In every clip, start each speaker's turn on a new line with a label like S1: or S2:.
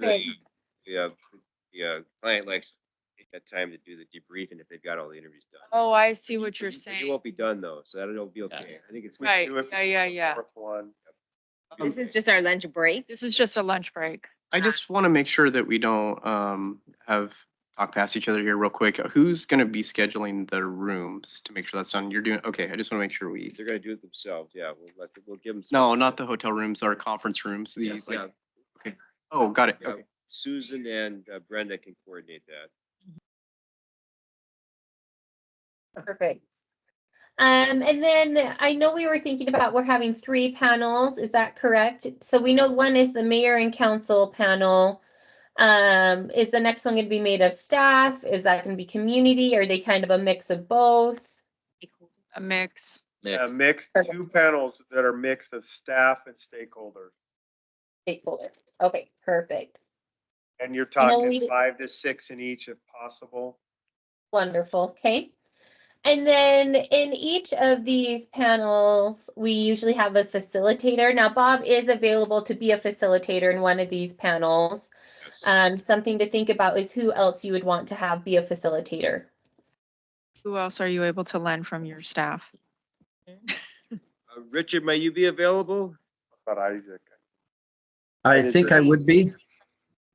S1: that
S2: big.
S1: you- The, uh, the uh, client likes to take that time to do the debriefing if they've got all the interviews done.
S2: Oh, I see what
S1: But
S2: you're
S1: you- but You
S2: saying.
S1: won't be done though, so that'll be okay. I think it's.
S2: Right, yeah, yeah, yeah.
S1: Um,
S3: This is just our lunch break.
S2: This is just a lunch break.
S4: I just want to make sure that we don't um, have talk past each other here real quick. Who's going to be scheduling the rooms to make sure that's done? You're doing, okay, I just want to make sure we,
S1: They're gonna do it themselves, yeah, we'll let, them- we'll give them.
S4: no, not the hotel rooms, our conference rooms, these like, okay. Oh, got it.
S1: Yeah.
S4: Okay.
S1: Susan and uh, Brenda can coordinate that.
S3: Perfect. Um, and then I know we were thinking about, we're having three panels, is that correct? So we know one is the mayor and council panel. Um, is the next one gonna be made of staff? Is that gonna be community? Are they kind of a mix of both?
S2: A mix.
S5: A
S1: Um,
S5: mix,
S3: Perfect.
S5: two panels that are mixed of staff and stakeholders.
S3: Stakeholders. Okay, perfect.
S5: And you're
S3: And then
S5: talking
S3: we-
S5: five to six in each if possible.
S3: Wonderful, okay. And then in each of these panels, we usually have a facilitator. Now Bob is available to be a facilitator in one of these panels. Um, something to think about is who else you would want to have be a facilitator.
S2: Who else are you able to lend from your staff?
S1: Uh, Richard, may you be available?
S5: But Isaac,
S6: I
S5: And it's
S6: think
S5: a-
S6: I would be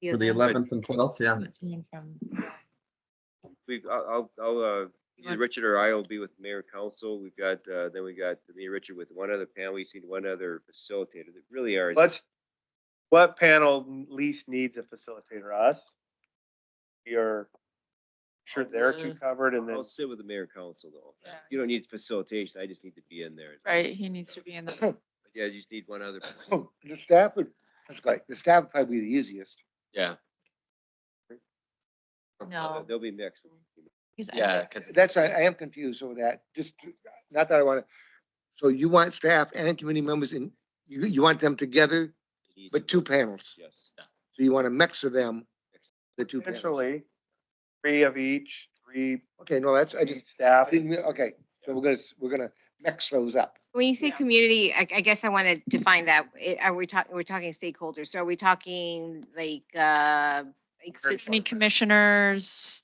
S6: for the eleventh and twelfth, yeah.
S1: We, I'll, I'll- I'll, uh, either
S2: Want-
S1: Richard or I will be with mayor and council. We've got, uh, then we got me and Richard with one other panel. We seen one other facilitator that really are.
S5: let's, what panel least needs a facilitator? Us? You're sure they're too covered and then
S1: I'll sit with the mayor and council though.
S2: Yeah.
S1: You don't need facilitation. I just need to be in there.
S2: Right, he needs to be in the,
S1: But Yeah, you just need one other. person.
S7: Oh, The staff would, it's like, the staff would probably be the easiest.
S1: Uh,
S2: no.
S1: They'll be mixed.
S2: Yeah.
S7: That's, I, I am confused over that, just, not that I wanna, so you want staff and committee members in, you, you want them together, but two panels.
S1: Yes.
S7: So you want a mix of them, the two panels.
S5: potentially three of each, three
S7: Okay, no, that's, I just, I
S5: staff.
S7: didn't, re- okay, so we're gonna, s- we're gonna mix those up.
S8: When you say
S5: Yeah.
S8: community, I, I guess I want to define that. I- Are we talking, we're talking stakeholders, so are we talking like, uh, like
S5: Very
S8: spec-
S2: Any commissioners,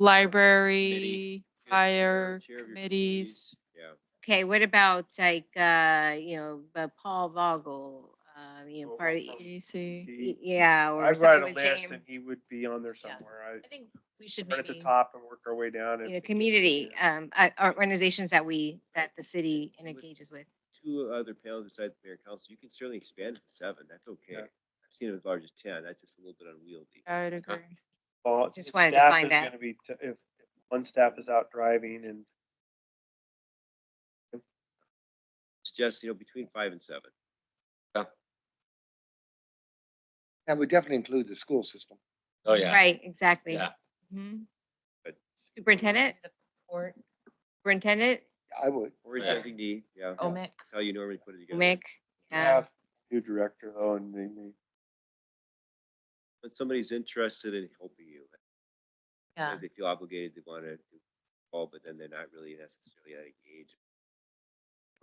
S1: Right.
S2: library,
S1: Yeah,
S2: fire,
S1: chair of your
S2: committees.
S1: Yeah.
S8: okay, what about like, uh, you know, uh, Paul Vogel, uh, you know,
S5: Paul
S8: part of,
S5: Vogel.
S2: E EDC.
S5: He-
S8: yeah, or
S5: I'd write a
S8: someone with
S5: list and
S8: James,
S5: he would be on there
S8: Yeah.
S5: somewhere. I
S8: I think we should
S5: start at the
S8: maybe,
S5: top and work our way down.
S8: you
S5: and
S8: know, community, um, uh, or organizations that we, that the city
S1: Would-
S8: engages with.
S1: Two other panels besides mayor and council. You can certainly expand it to seven. That's okay.
S5: Yeah.
S1: I've seen it as large as ten. That's just a little bit unwieldy.
S2: I would agree.
S5: Well,
S8: Just
S5: if
S8: wanted to
S5: staff
S8: find
S5: is
S8: that.
S5: gonna be t- If if one staff is out driving and
S1: Suggest, you know, between five and seven.
S7: And we definitely include the school system.
S9: Oh, yeah.
S8: Right, exactly.
S9: Yeah.
S8: Mhm.
S1: But-
S8: Superintendent? Superintendent,
S7: I would,
S1: Or a
S9: Yeah.
S1: designee, yeah.
S2: OMIC.
S1: How you normally put it together.
S8: Mick, yeah.
S5: staff, new director though, and they may
S1: But somebody's interested in helping you.
S2: Yeah.
S1: They feel obligated, they want to involve, but then they're not really necessarily that engaged.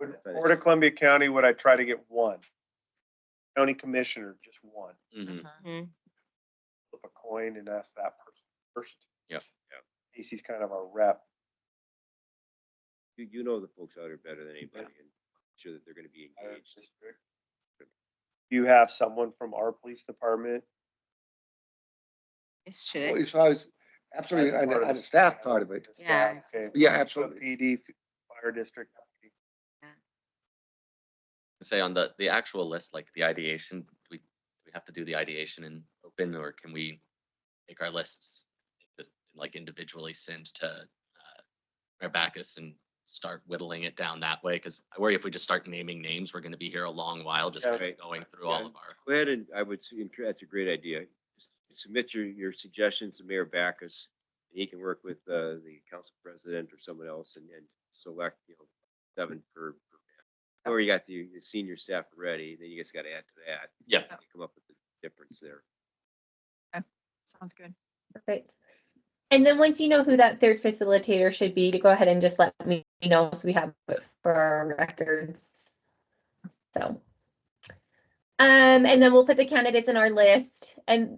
S5: Would
S1: That's what I
S5: Board of
S1: think.
S5: Columbia County, would I try to get one? County Commissioner, just one.
S9: Mhm.
S8: Mhm.
S5: Flip a coin and ask that person first.
S9: Yep.
S1: Yep.
S5: Casey's kind of our rep.
S1: You, you know the folks out there better than anybody and sure that they're going to be engaged.
S5: Do You have someone from our police department?
S8: This
S7: Well,
S8: should,
S7: as far as, absolutely,
S5: as
S7: on,
S5: part
S7: the-
S5: of
S7: on
S5: the
S7: the staff part of it.
S5: The staff,
S8: Yeah.
S5: Okay.
S7: Yeah,
S5: So
S7: absolutely.
S5: PD, fire district.
S9: Say on the, the actual list, like the ideation, do we, do we have to do the ideation in open or can we make our lists just like individually send to uh, Mayor Backus and start whittling it down that way? Because I worry if we just start naming names, we're going to be here a long while just
S5: Yeah.
S9: kinda going through all
S1: Yeah.
S9: of our.
S1: Go ahead and I would, s- enc- that's a great idea. S- Submit your, your suggestions to Mayor Backus. and He can work with, uh, the council president or someone else and, and select, you know, seven per. per man. Or you got the the senior staff ready, then you just got to add to that.
S9: Yeah.
S1: and Come up with the difference there.
S2: Sounds good.
S3: Perfect. And then once you know who that third facilitator should be, to go ahead and just let me know so we have it for our records. So. Um, and then we'll put the candidates in our list and